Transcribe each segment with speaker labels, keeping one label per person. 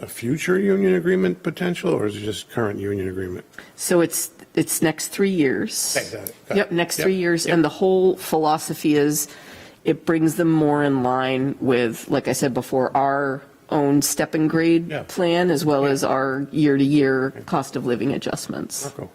Speaker 1: a future union agreement potential, or is it just current union agreement?
Speaker 2: So it's, it's next three years.
Speaker 1: Okay, got it, got it.
Speaker 2: Yep, next
Speaker 1: Yep,
Speaker 2: three years. And the whole philosophy is it brings them more in line with, like I said before, our own step and
Speaker 1: Yeah.
Speaker 2: grade plan as well as our year-to-year cost of living adjustments.
Speaker 1: Marco?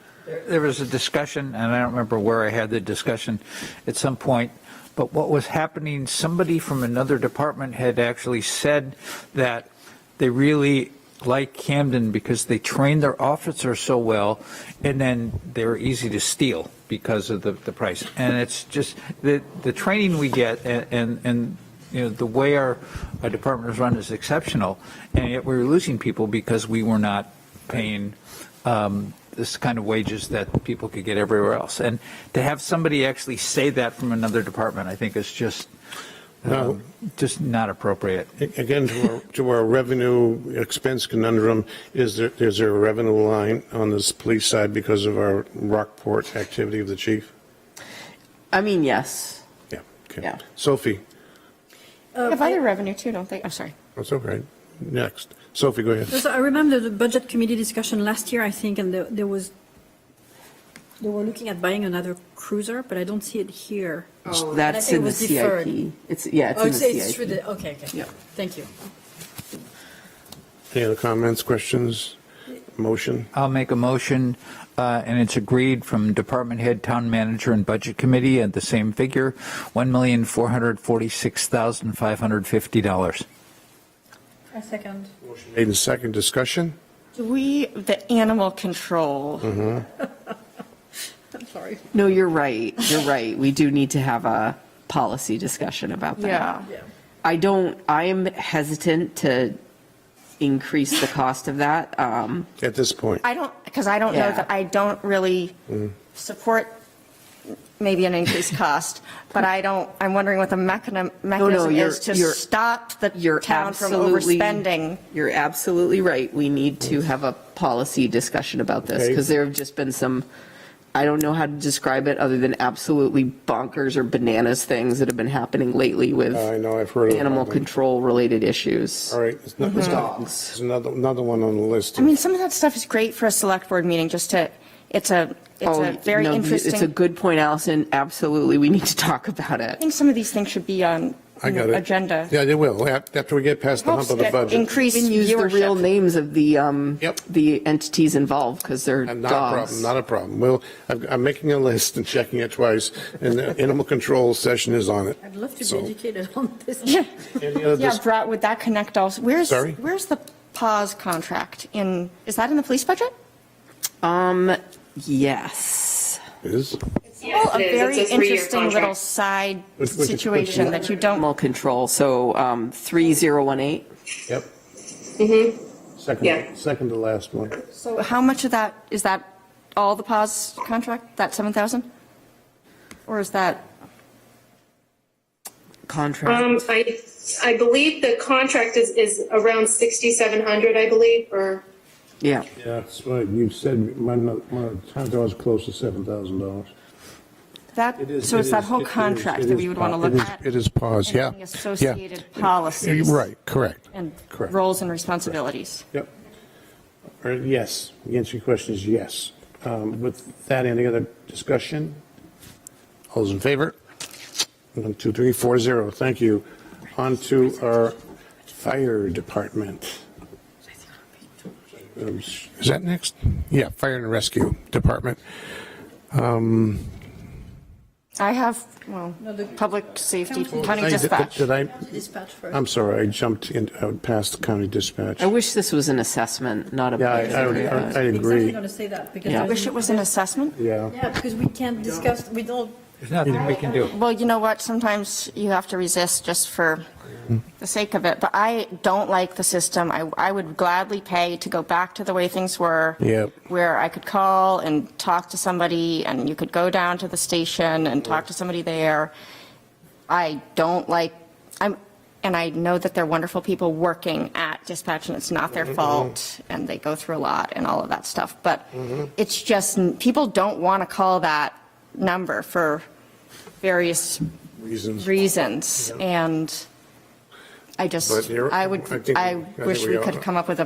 Speaker 3: There was a discussion, and I don't remember where I had the discussion at some point, but what was happening, somebody from another department had actually said that they really like Camden because they train their officers so well, and then they're easy to steal because of the, the price. And it's just, the, the training we get and- and, and, you know, the way our, our department is run is exceptional, and yet we're losing people because we were not paying um, this kind of wages that people could get everywhere else. And to have somebody actually say that from another department, I think is just,
Speaker 1: No.
Speaker 3: um, just not appropriate.
Speaker 1: Again, to our, to our revenue expense conundrum, is there, is there a revenue line on this police side because of our Rockport activity of the chief?
Speaker 2: I mean, yes.
Speaker 1: Yeah. okay.
Speaker 2: Yeah.
Speaker 1: Sophie,
Speaker 4: They have other revenue too, don't they? I'm sorry.
Speaker 1: that's okay. Next. Sophie, go ahead.
Speaker 5: So I remember the budget committee discussion last year, I think, and there, there was, they were looking at buying another cruiser, but I don't see it here.
Speaker 2: That's
Speaker 5: It
Speaker 2: in the
Speaker 5: was deferred.
Speaker 2: CIP. It's, yeah, it's
Speaker 5: Oh,
Speaker 2: in
Speaker 5: it's, it's through
Speaker 2: the CIP.
Speaker 5: the, okay, okay.
Speaker 2: Yeah.
Speaker 5: Thank you.
Speaker 1: Any other comments, questions, motion?
Speaker 3: I'll make a motion, uh, and it's agreed from department head, town manager, and budget committee at the same figure, $1,446,550.
Speaker 5: A second.
Speaker 1: Made in second discussion?
Speaker 4: Do we, the animal control,
Speaker 2: Mm.
Speaker 5: I'm sorry.
Speaker 2: No, you're right. You're right. We do need to have a policy discussion about that.
Speaker 4: yeah.
Speaker 2: I don't, I am hesitant to increase the cost of that. Um,
Speaker 1: At this point,
Speaker 4: I don't, because I don't know
Speaker 2: Yeah. Mm.
Speaker 4: that, I don't really support maybe an increased cost, but I don't, I'm wondering what the mechani- mechanism
Speaker 2: you're-
Speaker 4: is to
Speaker 2: you're-
Speaker 4: stop the
Speaker 2: You're
Speaker 4: town from
Speaker 2: absolutely-
Speaker 4: overspending.
Speaker 2: You're absolutely right. We need to have a policy discussion about this
Speaker 1: Okay.
Speaker 2: because there have just been some, I don't know how to describe it other than absolutely bonkers or bananas things that have been happening lately with
Speaker 1: I know, I've heard of
Speaker 2: animal
Speaker 1: them.
Speaker 2: control related issues.
Speaker 1: all right. it's not- it's not-
Speaker 2: Dogs.
Speaker 1: It's another, another one on the list.
Speaker 4: I mean, some of that stuff is great for a select board meeting, just to, it's a, it's
Speaker 2: Oh,
Speaker 4: a very
Speaker 2: no,
Speaker 4: interesting.
Speaker 2: It's a
Speaker 4: I
Speaker 2: good point, Allison. Absolutely. We need to talk about it.
Speaker 4: think some of these things should be on
Speaker 1: I got it.
Speaker 4: agenda.
Speaker 1: Yeah, they will, Ap- after we get past the hump
Speaker 4: Helps
Speaker 1: of the
Speaker 4: get
Speaker 1: budget.
Speaker 4: increased
Speaker 2: Even use the real
Speaker 4: viewership.
Speaker 2: names of the, um,
Speaker 1: Yep.
Speaker 2: the entities involved because they're
Speaker 1: And
Speaker 2: dogs.
Speaker 1: Not a problem, not a problem. Well, I've- I'm making a list and checking it twice, and the animal control session is on it.
Speaker 5: I'd love to
Speaker 1: So-
Speaker 5: be educated on this.
Speaker 1: Any other
Speaker 4: Yeah,
Speaker 1: dis-
Speaker 4: Brad, would that connect also? Where's,
Speaker 1: Sorry?
Speaker 4: where's the pause contract in, is that in the police budget?
Speaker 2: Um, yes.
Speaker 1: is?
Speaker 4: Well, Oh, a
Speaker 6: it is.
Speaker 4: very
Speaker 6: It's a three-year
Speaker 4: interesting little
Speaker 6: contract.
Speaker 4: side
Speaker 1: Which- which- which-
Speaker 4: situation that you don't,
Speaker 2: Animal control, so, um, 3018.
Speaker 1: Yep.
Speaker 6: Yeah.
Speaker 4: Mm-hmm.
Speaker 1: Second, second to last one.
Speaker 4: so how much of that, is that all the pause contract, that 7,000? Or is that,
Speaker 2: contract.
Speaker 6: Um, I, I believe the contract is, is around 6,700, I believe, or,
Speaker 2: Yeah,
Speaker 1: That's right, you said, my, my time was close to $7,000.
Speaker 4: that,
Speaker 1: It is-
Speaker 4: so it's
Speaker 1: it
Speaker 4: that
Speaker 1: is-
Speaker 4: whole
Speaker 1: it is-
Speaker 4: contract
Speaker 1: it
Speaker 4: that
Speaker 1: is
Speaker 4: we would want to
Speaker 1: pa-
Speaker 4: look
Speaker 1: it is-
Speaker 4: at?
Speaker 1: It is paused, yeah.
Speaker 4: Anything
Speaker 1: yeah.
Speaker 4: associated policies.
Speaker 1: Right, correct.
Speaker 4: And
Speaker 1: Correct.
Speaker 4: roles and responsibilities.
Speaker 1: Yep. Or yes, the answer to your question is yes. Um, With that, any other discussion? All those in favor? One, two, three, four, zero. Thank you. On to our fire department. Um, Is that next? Yeah, fire and rescue department. Um,
Speaker 4: I have, well, public safety, county
Speaker 1: Did I-
Speaker 4: dispatch.
Speaker 1: Did I,
Speaker 5: Dispatch first.
Speaker 1: I'm sorry, I jumped in, uh, past the county dispatch.
Speaker 2: I wish this was an assessment, not a.
Speaker 1: Yeah, I, I would- I I
Speaker 5: Exactly
Speaker 1: agree.
Speaker 5: going to say that because.
Speaker 2: Yeah.
Speaker 5: I
Speaker 4: Wish it was an assessment?
Speaker 1: Yeah.
Speaker 5: Yeah, because we can't discuss, we don't,
Speaker 3: There's nothing we can do.
Speaker 4: Well, you know what, sometimes you have to resist just for the sake of it, but I don't like the system. I, I would gladly pay to go back to the way things were.
Speaker 1: Yep.
Speaker 4: Where I could call and talk to somebody, and you could go down to the station and talk to somebody there. I don't like, I'm, and I know that they're wonderful people working at dispatch, and it's not their fault, and they go through a lot and all of that stuff, but it's just, people don't want to call that number for various
Speaker 1: Reasons.
Speaker 4: reasons, and I just,
Speaker 1: But you're-
Speaker 4: I
Speaker 1: I
Speaker 4: would,
Speaker 1: think- I
Speaker 4: I
Speaker 1: think
Speaker 4: wish
Speaker 1: we
Speaker 4: we
Speaker 1: all-
Speaker 4: could come up with a